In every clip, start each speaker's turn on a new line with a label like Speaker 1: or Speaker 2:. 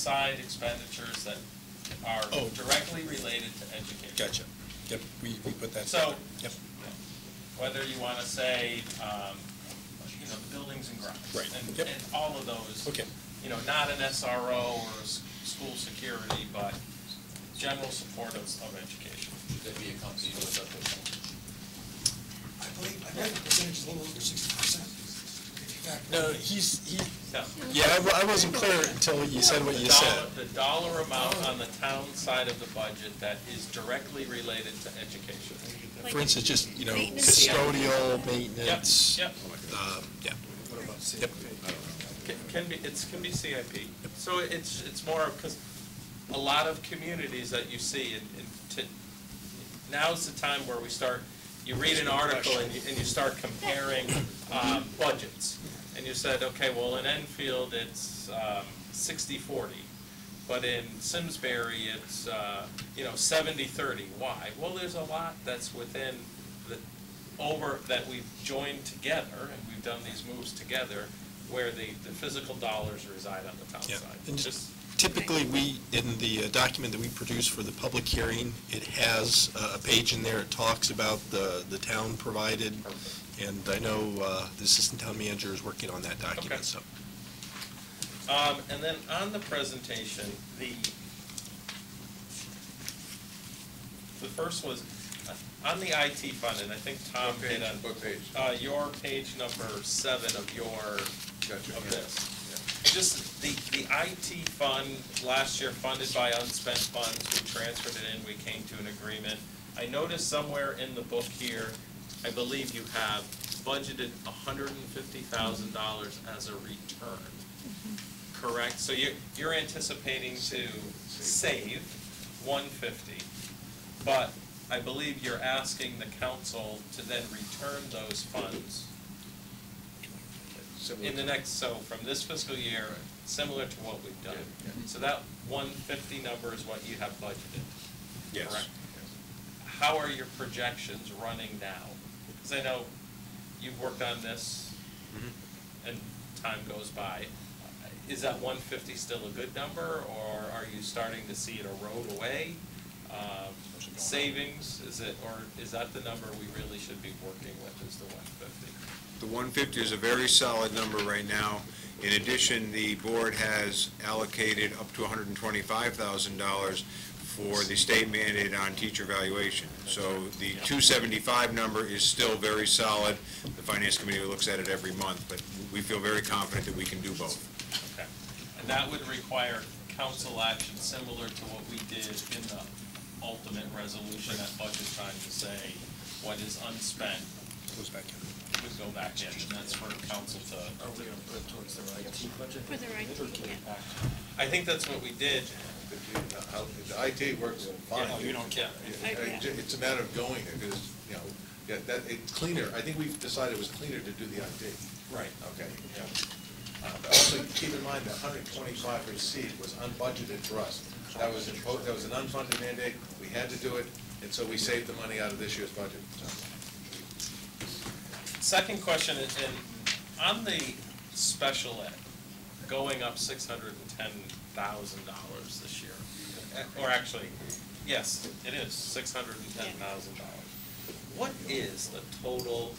Speaker 1: side expenditures that are
Speaker 2: Oh.
Speaker 1: directly related to education.
Speaker 2: Gotcha. Yep, we, we put that.
Speaker 1: So-
Speaker 2: Yep,
Speaker 1: Whether you want to say, um, you know, buildings and grounds.
Speaker 2: Right.
Speaker 1: And,
Speaker 2: Yep.
Speaker 1: and all of those.
Speaker 2: okay,
Speaker 1: You know, not an SRO or a s- school security, but general support of, of education.
Speaker 3: Should that be accompanied with other?
Speaker 4: I believe, I believe the percentage is a little over sixty percent. In fact,
Speaker 2: no, he's, he,
Speaker 1: No.
Speaker 2: yeah, I wa- I wasn't clear until you said what
Speaker 1: The
Speaker 2: you
Speaker 1: dollar-
Speaker 2: said.
Speaker 1: The dollar amount on the town side of the budget that is directly related to education.
Speaker 2: For instance, just, you know,
Speaker 5: Maintenance.
Speaker 2: custodial maintenance.
Speaker 1: Yep.
Speaker 2: Um, yeah. Yep.
Speaker 1: Ca- Can be, it's, can be CIP. So it's, it's more, because a lot of communities that you see, and, and to, now's the time where we start, you read an article and you, and you start comparing, um, budgets. And you said, okay, well, in Enfield, it's, um, sixty-forty, but in Simsbury, it's, uh, you know, seventy-thirty. Why? Well, there's a lot that's within the, over, that we've joined together, and we've done these moves together, where the, the physical dollars reside on the town
Speaker 2: Yeah.
Speaker 1: side.
Speaker 2: And
Speaker 1: Just-
Speaker 2: just- Typically, we, in the uh, document that we produce for the public hearing, it has uh, a page in there, it talks about the, the town provided, and I know uh, the assistant town manager is working on that
Speaker 1: Okay.
Speaker 2: document, so.
Speaker 1: Um, and then on the presentation, the, the first was, uh, on the IT fund, and I think Tom hit on,
Speaker 3: What page?
Speaker 1: uh, your page number seven of your,
Speaker 3: Gotcha.
Speaker 1: of this. Just the, the IT fund, last year funded by unspent funds, we transferred it in, we came to an agreement. I noticed somewhere in the book here, I believe you have budgeted hundred and fifty thousand dollars as a return. Correct, so you, you're anticipating to save one fifty, but I believe you're asking the council to then return those funds in the next, so from this fiscal year, similar to what we've done.
Speaker 3: Yeah,
Speaker 1: So that one fifty number is what you have budgeted.
Speaker 2: Yes.
Speaker 1: correct? How are your projections running now? Because I know you've worked on this
Speaker 3: Mm-hmm.
Speaker 1: and time goes by. Is that one fifty still a good number, or are you starting to see it erode away? Um, Savings, is it, or is that the number we really should be working with, is the one fifty?
Speaker 6: The 150 is a very solid number right now. In addition, the board has allocated up to $125,000 for the state mandate on teacher evaluation. So the 275 number is still very solid. The finance committee looks at it every month, but we feel very confident that we can do both.
Speaker 1: Okay, and that would require council action similar to what we did in the ultimate resolution at budget time to say what is unspent
Speaker 2: Goes back in. Oh.
Speaker 1: would go back in, and that's for council to.
Speaker 5: Are we gonna put it towards their IT budget?
Speaker 7: For their IT,
Speaker 5: Or give it
Speaker 7: yeah.
Speaker 5: back?
Speaker 1: I think that's what we did.
Speaker 3: Uh, The IT works fine.
Speaker 1: Yeah, you don't care.
Speaker 3: Yeah, it- It's a matter of going there, because, you know, yeah, that, it's cleaner, I think we've decided it was cleaner to do the IT.
Speaker 1: Right.
Speaker 3: Okay, yeah. Uh, but Also, keep in mind, the hundred twenty-five received was unbudgeted for us. That was, impo- that was an unfunded mandate, we had to do it, and so we saved the money out of this year's budget.
Speaker 1: Second question, is, and on the special ed, going up six hundred and ten thousand dollars this year. uh, Or actually, yes, it is, six hundred and ten thousand dollars. What is the total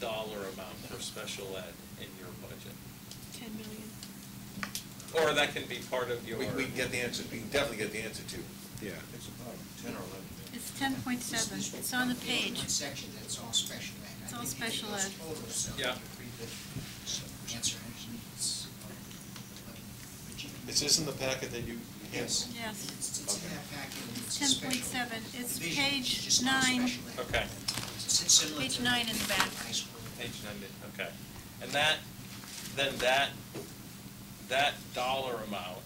Speaker 1: dollar amount for special ed in your budget?
Speaker 7: 10 million.
Speaker 1: Or that can be part of your.
Speaker 3: We, we can get the answer, we can definitely get the answer to you.
Speaker 6: Yeah.
Speaker 4: It's about ten or eleven.
Speaker 5: It's ten point seven, it's on the page.
Speaker 8: One section that's all special ed. I
Speaker 5: It's all
Speaker 8: think if it
Speaker 5: special
Speaker 8: goes
Speaker 5: ed.
Speaker 8: total, so
Speaker 1: Yeah.
Speaker 8: you read the Answer. It's, uh, but you-
Speaker 3: Is this in the packet that you?
Speaker 8: Yes.
Speaker 5: Yes,
Speaker 8: It's it's in that packet. and it's
Speaker 5: ten
Speaker 8: special.
Speaker 5: point seven, it's
Speaker 8: Division is
Speaker 5: page
Speaker 8: just all
Speaker 5: nine.
Speaker 8: special ed.
Speaker 1: Okay,
Speaker 8: It's- it's similar
Speaker 5: Page
Speaker 8: to
Speaker 5: nine in the back.
Speaker 8: High school.
Speaker 1: page ninety, okay. And that, then that, that dollar amount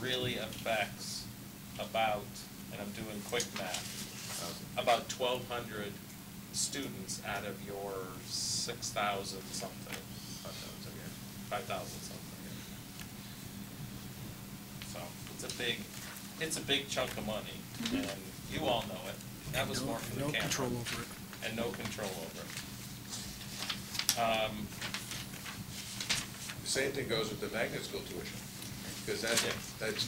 Speaker 1: really affects about, and I'm doing quick math, about twelve hundred students out of your six thousand something, five thousand something. So it's a big, it's a big chunk of money, and you all know it. That was more for the
Speaker 2: No
Speaker 1: camera.
Speaker 2: control over it.
Speaker 1: And no control over it. Um,
Speaker 3: Same thing goes with the magnet school tuition. because that, that's